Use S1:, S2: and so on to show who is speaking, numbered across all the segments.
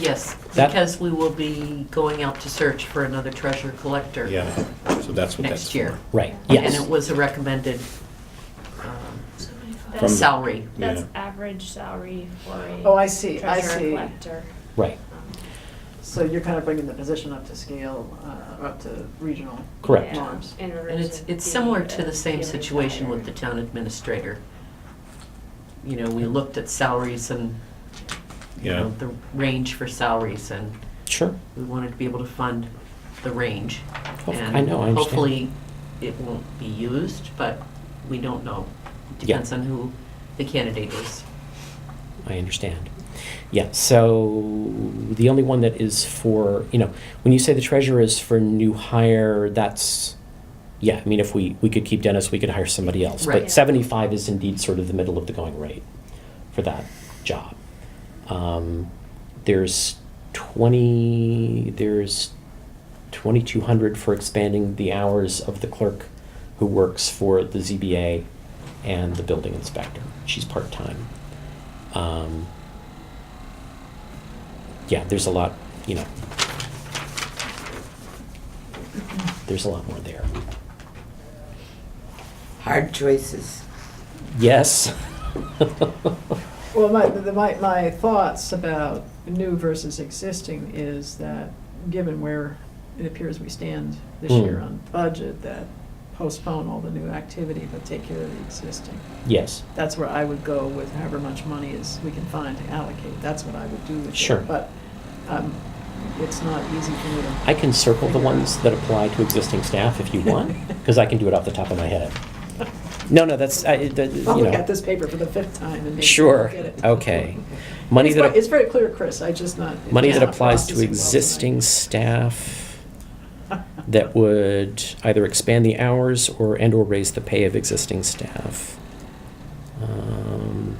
S1: Yes,
S2: That-
S1: because we will be going out to search for another treasure collector.
S3: Yeah, so that's what that's
S1: Next year.
S3: for.
S2: Right,
S1: And
S2: yes.
S1: it was a recommended um,
S3: From-
S4: That's,
S1: salary.
S4: that's
S3: Yeah.
S4: average salary for a.
S5: Oh, I see, I
S4: treasurer
S5: see.
S4: collector. Um,
S2: Right,
S5: So you're kind of bringing the position up to scale, uh, up to regional.
S2: Correct.
S4: Yeah,
S5: norms.
S4: in order
S1: And it's,
S4: to
S1: it's similar
S4: be
S1: to the same
S4: a
S1: situation with the
S4: higher-
S1: town administrator. You know, we looked at salaries and, you
S3: Yeah.
S1: know, the range for salaries, and
S2: sure.
S1: we wanted to be able to fund the range.
S2: Oh, I know, I understand.
S1: And hopefully, it won't be used, but we don't know.
S2: Yeah.
S1: Depends on who the candidate is.
S2: I understand. Yeah, so the only one that is for, you know, when you say the treasurer is for new hire, that's, yeah, I mean, if we, we could keep Dennis, we could hire somebody else.
S1: Right.
S2: But 75 is indeed sort of the middle of the going rate for that job. Um, there's 20, there's 2,200 for expanding the hours of the clerk who works for the ZBA and the building inspector. She's part-time. Um, yeah, there's a lot, you know. There's a lot more there.
S6: Hard choices.
S2: Yes.
S5: Well, my, the- my, my thoughts about new versus existing is that, given where it appears we stand this
S2: Hmm.
S5: year on budget, that postpone all the new activity, but take care of the existing.
S2: yes.
S5: That's where I would go with however much money is, we can find to allocate, that's what I would do with it.
S2: Sure.
S5: But, um, it's not easy for me to.
S2: I can circle the ones that apply to existing staff if you want, because I can do it off the top of my head. No, no, that's, I, it- that, you know.
S5: I'll look at this paper for the fifth time and maybe
S2: Sure,
S5: get it.
S2: okay. Money
S5: It's
S2: that,
S5: ve- It's
S2: ap-
S5: very clear, Chris, I just not. it's
S2: money that
S5: not
S2: applies to
S5: processing well
S2: existing
S5: tonight.
S2: staff that would either expand the hours or, and/or raise the pay of existing staff. Um,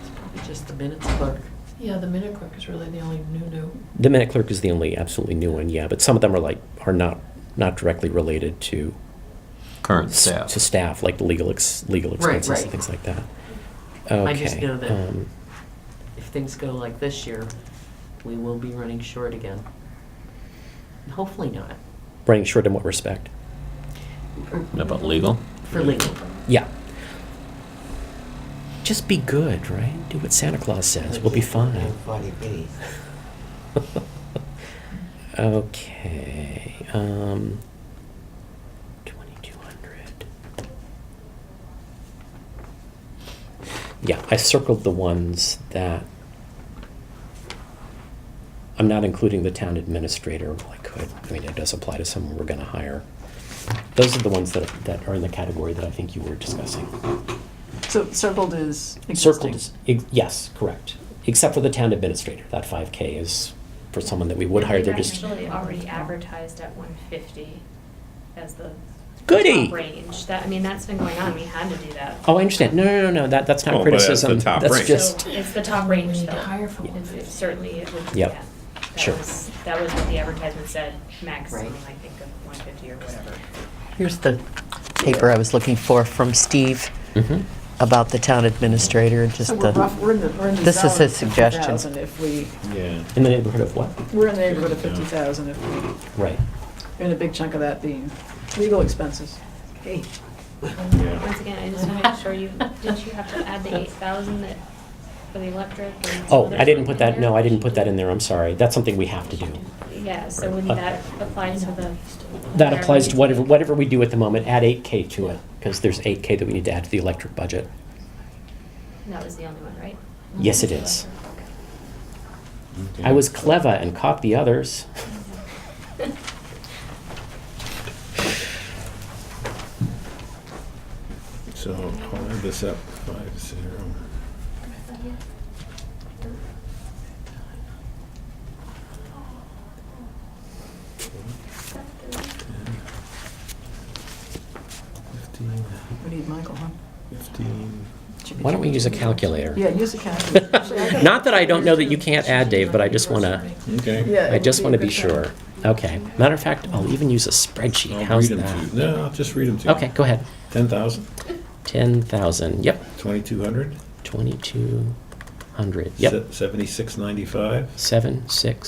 S1: It's probably just the minutes clerk.
S7: Yeah, the minute clerk is really the only new new.
S2: The minute clerk is the only absolutely new one, yeah, but some of them are like, are not, not directly related to.
S8: current
S2: s-
S8: staff.
S2: To staff, like the legal, ex- legal
S1: Right,
S2: expenses
S1: right.
S2: and things like that.
S1: I just
S2: Okay,
S1: know that-
S2: um,
S1: if things go like this year, we will be running short again. And Hopefully not,
S2: Running short in what respect?
S8: About legal?
S1: for legal.
S2: Yeah. Just be good, right? Do what Santa Claus says. We'll be fine.
S6: Forty B.
S2: Okay. Um, 2200. Yeah, I circled the ones that I'm not including the town administrator. Well, I could. I mean, it does apply to someone we're going to hire. Those are the ones that, that are in the category that I think you were discussing.
S5: So circled is
S2: Circled,
S5: existing.
S2: is- ex- yes, correct. Except for the town administrator, that 5K is for someone that we would hire. They're
S4: We've
S2: just,
S4: Actually already advertised at one fifty as the.
S2: Goody.
S4: top Range, that, I mean, that's been going on, we had to do that.
S2: oh, I understand. No, no, no, no, that, that's
S3: Oh,
S2: not
S3: but that's the
S2: criticism.
S3: top
S2: That's
S3: rank.
S2: just,
S4: So It's the top range
S7: We need
S4: though.
S7: to hire for
S2: Yeah.
S7: one
S4: It
S7: fifty.
S4: Certainly it would.
S2: Yep.
S4: yeah. That
S2: Sure.
S4: was- That was what the advertisement said, maximum,
S1: Right.
S4: I think, of one fifty or whatever.
S1: Here's the paper I was looking for from Steve
S2: Mhm.
S1: about the town administrator and
S5: So we're rough, we're in the, we're in the
S1: This is
S5: zone of
S1: his suggestion.
S5: 50,000 if we,
S3: Yeah.
S2: in the neighborhood of what?
S5: we're in the neighborhood of fifty thousand if we,
S2: Right.
S5: and a big chunk of that being legal expenses. Hey,
S3: Yeah.
S4: Once again, I just want to make sure you, didn't you have to add the eight thousand that, for the electric and some
S2: Oh,
S4: other
S2: I didn't
S4: stuff in
S2: put that,
S4: there?
S2: no, I didn't put that in there, I'm sorry. That's something we have to do.
S4: Yeah, so wouldn't that apply to the?
S2: That applies to whatever, whatever we do at the moment, add 8K to it, because there's 8K that we need to add to the electric budget.
S4: That was the only one, right?
S2: Yes, it is.
S3: Okay.
S2: I was clever and caught the others.
S3: So I'll add this up, five, zero. Fifteen,
S5: we need Michael, huh?
S3: fifteen.
S2: Why don't we use a calculator?
S5: Yeah, use a calculator. Actually, I think-
S2: Not that I don't know that you can't add, Dave, but I just want to,
S3: Okay.
S5: Yeah, it
S2: I
S5: would
S2: just
S5: be a
S2: want to be
S5: good time.
S2: sure. Okay. Matter of fact, I'll even use a spreadsheet.
S3: I'll
S2: How's
S3: read them to you.
S2: that?
S3: No, I'll just read them to you.
S2: Okay, go ahead.
S3: Ten thousand,
S2: 10,000, yep.
S3: twenty-two hundred,
S2: 2,200, hundred, yep,
S3: Seventy-six ninety-five?
S2: seven, six,